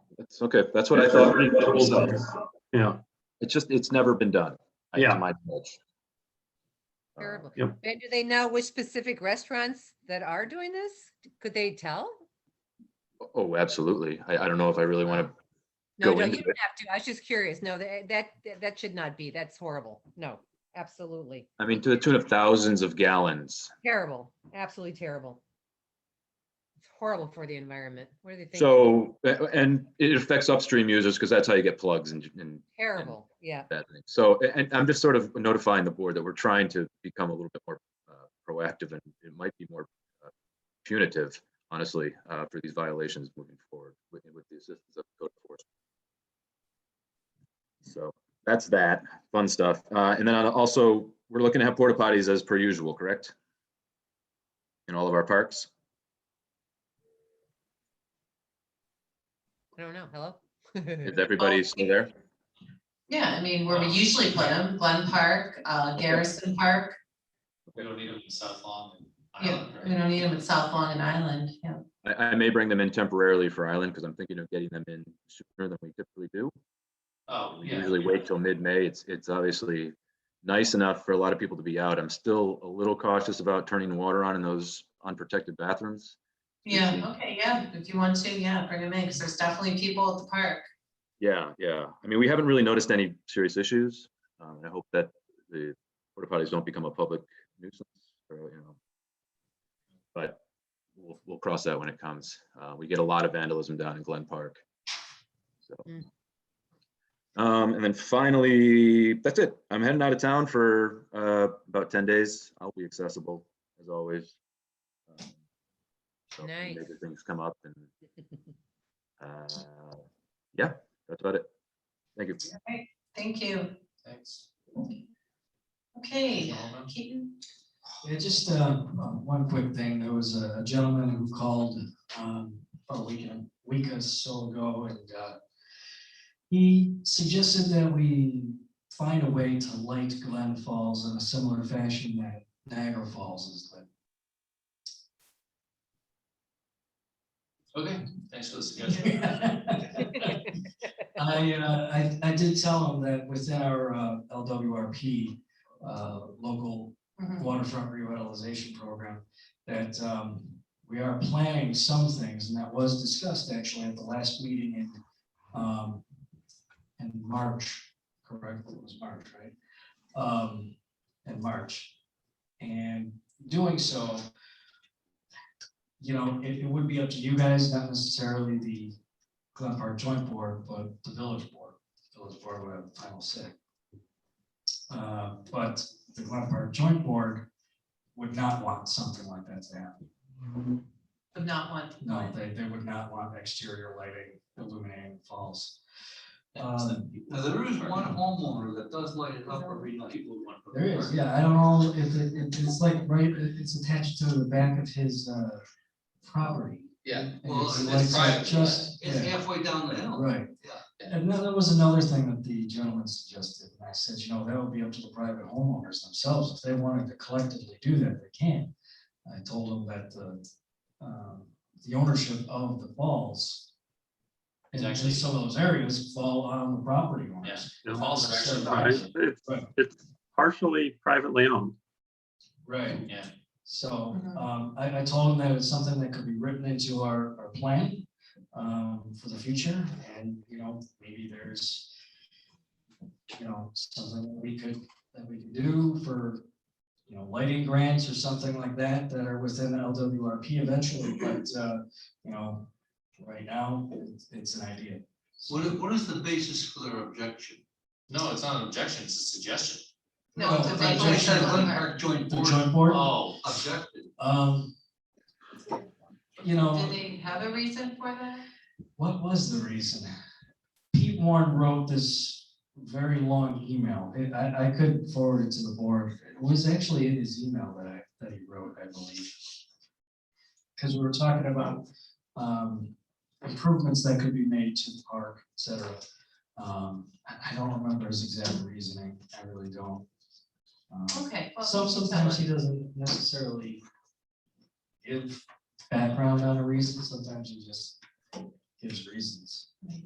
Okay, that's what I thought. Yeah, It's just, it's never been done. I- to Yeah. my knowledge. Uh, Terrible. Yep. And do they know which specific restaurants that are doing this? Could they tell? Oh, absolutely. I, I don't know if I really want to, No, Go no, you into don't have to. I was just curious. No, that, that, that should not be. That's horrible. No, absolutely. I mean, to the tune of thousands of gallons. Terrible. Absolutely terrible. It's horrible for the environment. What do they think? So, a- and it affects upstream users because that's how you get plugs and, and Terrible. Yeah. that thing. So, a- and I'm just sort of notifying the board that we're trying to become a little bit more uh, proactive and it might be more uh, punitive, honestly, uh, for these violations moving forward with, with the assistance of code enforcement. So that's that, fun stuff. Uh, And then I'll also, we're looking to have porta potties as per usual, correct? In all of our parks? I don't know. Hello? Is everybody still there? Yeah, I mean, where we usually put them, Glen Park, uh, Garrison Park, We don't need them in South Lawn and yeah, Island, we right? don't need them at South Long and Island, yeah. I, I may bring them in temporarily for Island because I'm thinking of getting them in sooner than we typically do. Oh, We yeah. usually wait till mid-May. It's, it's obviously nice enough for a lot of people to be out. I'm still a little cautious about turning the water on in those unprotected bathrooms. Yeah, okay, yeah, if you want to, yeah, bring them in, because there's definitely people at the park. Yeah, yeah. I mean, we haven't really noticed any serious issues. Um, and I hope that the porta potties don't become a public nuisance or, you know. But we'll, we'll cross that when it comes. Uh, we get a lot of vandalism down in Glen Park. So. Mm. Um, and then finally, that's it. I'm heading out of town for, uh, about ten days. I'll be accessible as always. Um, So if any Nice. major things come up and, uh, yeah, that's about it. Thank you. Thank you. Thanks. Okay, Gentlemen. Keaton, Yeah, just uh, uh, one quick thing. There was a gentleman who called um, about a week, a week or so ago, and uh, he suggested that we find a way to light Glen Falls in a similar fashion that Niagara Falls is lit. Okay, thanks for the suggestion. I, uh, I, I did tell him that within our uh, LWRP uh, local mhm, waterfront revitalization program, that um, we are planning some things, and that was discussed actually at the last meeting in, um, in March, correct, it was March, right? Um, In March. And doing so, you know, it, it would be up to you guys, not necessarily the Glen Park Joint Board, but the village board, village board would have the final say. Uh, But the Glen Park Joint Board would not want something like that to happen. would not want. No, they, they would not want exterior lighting illuminating the falls. Um, Now, there is one homeowner that does light it up every night. People who want. to put There is, park. yeah, I don't know if it, it- it's like, right, it- it's attached to the back of his, uh, property. Yeah, And well, it's it's lights up private, just- but it's yeah. halfway down the hill. Right. Yeah. And then there was another thing that the gentleman suggested, and I said, you know, that would be up to the private homeowners themselves, if they wanted to collectively do that, they can. I told him that the, um, the ownership of the falls. Is And actually actually- some of those areas fall on the property Yeah, owners. the falls are actually Uh-huh. Right. private, it's, Right. it's partially privately owned. Right. yeah. So Mhm. um, I, I told him that it's something that could be written into our, our plan um, for the future and, you know, maybe there's, you know, something that we could, that we could do for, you know, lighting grants or something like that that are within LWRP eventually, but, uh, you know, right now, it's, it's an idea. What is, what is the basis for their objection? No, it's not an objection, it's a suggestion. No, it's No, a they I thought you vacation said on Glen the park. Park Joint The Board joint board, Oh, objected. um, you know. Did they have a reason for that? What was the reason? Pete Warren wrote this very long email. I- I, I could forward it to the board. It was actually in his email that I, that he wrote, I believe. Because we were talking about um, improvements that could be made to the park, et cetera. Um, I, I don't remember his exact reasoning. I really don't. Um, Oh, Okay. well, so we can sometimes tell he doesn't necessarily give background on a reason, sometimes he just gives reasons.